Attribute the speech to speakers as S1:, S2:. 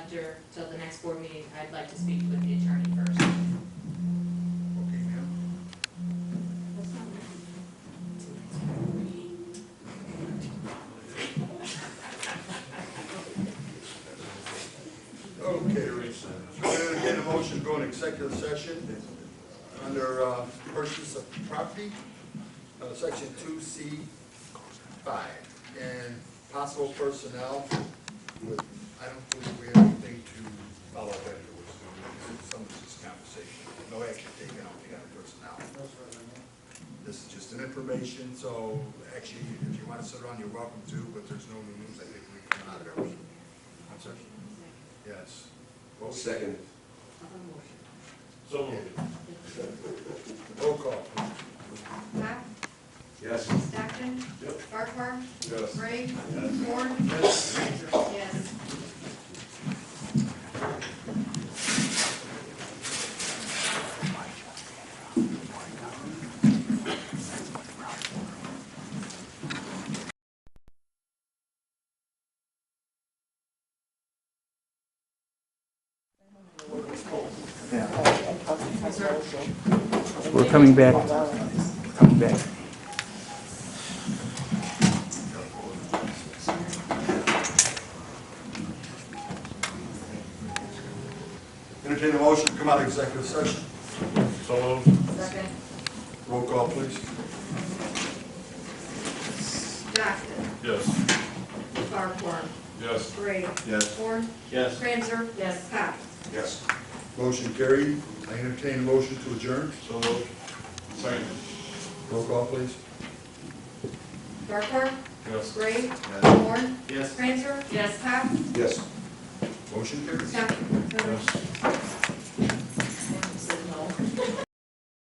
S1: after, till the next board meeting, I'd like to speak with the attorney first.
S2: Okay, ma'am. Okay, Teresa. So we're gonna get a motion to go in executive session under uh, purchase of property, uh, section two C five, and possible personnel with, I don't think we have anything to follow that, it was some of this conversation, no action taken on the other personnel. This is just an information, so actually, if you want to sit around, you're welcome to, but there's no news, I think we can come out of there. I'm sorry? Yes. Roll-
S3: Second.
S4: So
S2: Roll call.
S5: Mack,
S3: Yes.
S5: Stockton, Farquhar,
S3: Yes.
S5: Ray, Ford,
S2: Yes.
S5: yes.
S6: We're coming back, coming back.
S2: Entertain a motion to come out of executive session.
S4: So
S5: Second.
S2: Roll call, please.
S5: Stockton,
S4: Yes.
S5: Farquhar,
S4: Yes.
S5: Ray.
S2: Yes.
S5: Ford,
S4: Yes.
S5: Franzer, yes. Pop.
S2: Yes. Motion carried. I entertain a motion to adjourn.
S4: So moved. Second.
S2: Roll call, please.
S5: Farquhar,
S4: Yes.
S5: Ray.
S2: Yes.
S5: Ford,
S4: Yes.
S5: Franzer, yes. Pop.
S3: Yes.
S2: Motion carried.
S5: Stockton.
S4: Yes.